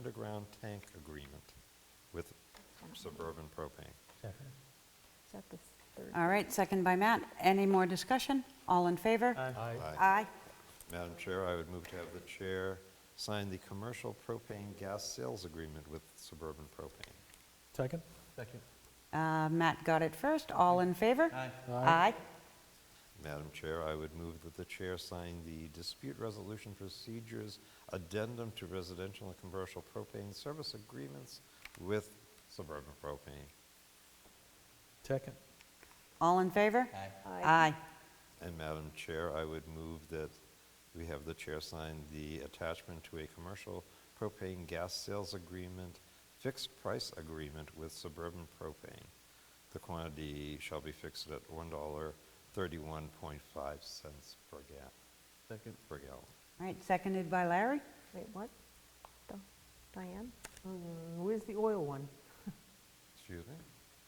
underground tank agreement with Suburban Propane. Second. Is that the third? All right, second by Matt. Any more discussion? All in favor? Aye. Aye. Madam Chair, I would move to have the chair sign the commercial propane gas sales agreement with Suburban Propane. Second? Second. Uh, Matt got it first. All in favor? Aye. Aye. Madam Chair, I would move that the chair sign the dispute resolution procedures addendum to residential and commercial propane service agreements with Suburban Propane. Second? All in favor? Aye. Aye. And Madam Chair, I would move that we have the chair sign the attachment to a commercial propane gas sales agreement, fixed price agreement with Suburban Propane. The quantity shall be fixed at $1.31.5 per gallon. Second. Per gallon. All right, seconded by Larry. Wait, what? Di- Diane? Mm, Where's the oil one? Excuse me?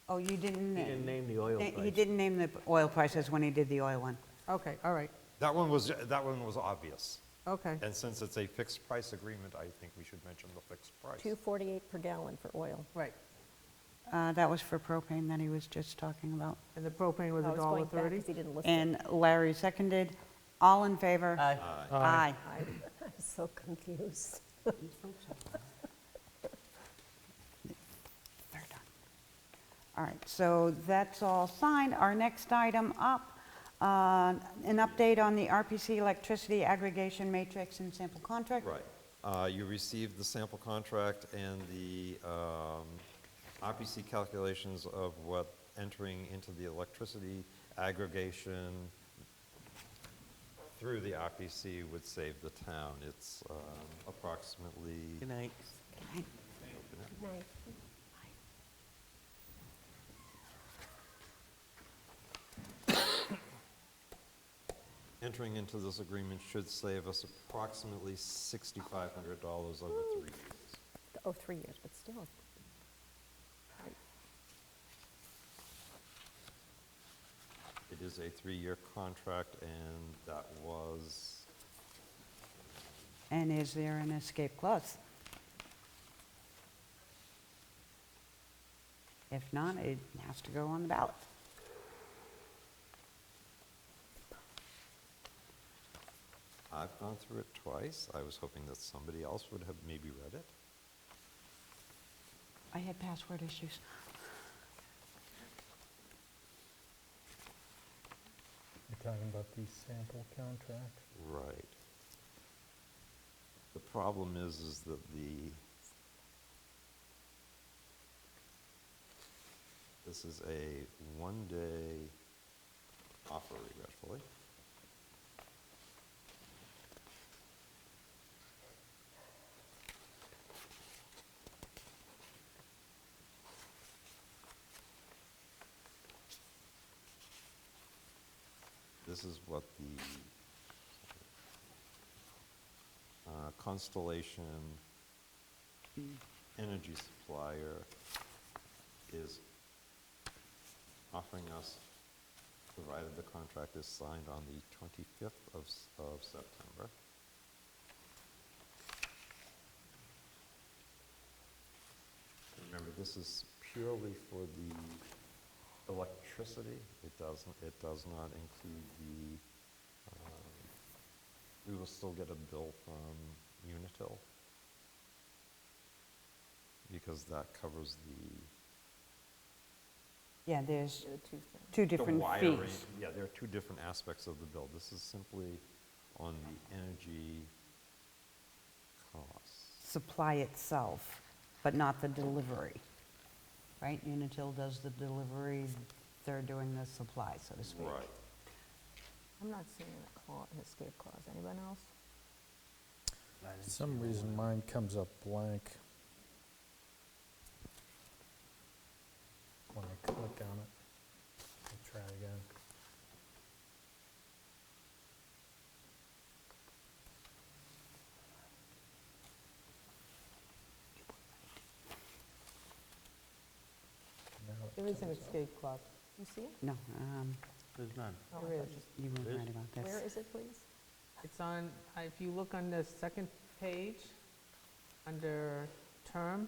Oh, you didn't... He didn't name the oil na- He price. didn't name the oil prices when he did the oil one. Okay, all right, That one was, that one was obvious. okay. And since it's a fixed price agreement, I think we should mention the fixed price. 248 per gallon for oil. Right, Uh, That was for propane that he was just talking about. and the propane was I a was dollar Oh, going back thirty? because he didn't list it. And Larry seconded. All in favor? Aye. Aye. I'm so confused. They're done. All right, so that's all signed. Our next item up, uh, an update on the RPC electricity aggregation matrix and sample contract. Right. Uh, You received the sample contract and the um, RPC calculations of what entering into the electricity aggregation through the RPC would save the town. It's um, approximately, Good night. Night. entering into this agreement should save us approximately $6,500 over three years. Oh, three years, but still. It is a three-year contract, and that was And is there an escape clause? If not, it has to go on the ballot. I've gone through it twice. I was hoping that somebody else would have maybe read it. I had password issues. You're talking about the sample contract? Right. The problem is, is that the, this is a one-day offer regretfully. This is what the uh, Constellation Energy Supplier is offering us, provided the contract is signed on the 25th of s- of September. Remember, this is purely for the electricity. It doesn't, it does not include the um, we will still get a bill from Unitil because that covers the Yeah, there's The two things. two the different wiring. fees. Yeah, there are two different aspects of the bill. This is simply on the energy costs. Supply itself, but not the delivery, right? Unitil does the delivery, they're doing the supply, so to speak. I'm not seeing a clause, an escape clause. Anyone else? For some reason mine comes up blank when I click on it. I'll try again. Now it There is an comes up. escape clause. You see it? No, um, There's none. Oh, I There thought is. you- you were Liz? right about Where this. is it, please? It's on, if you look on the second page, under term?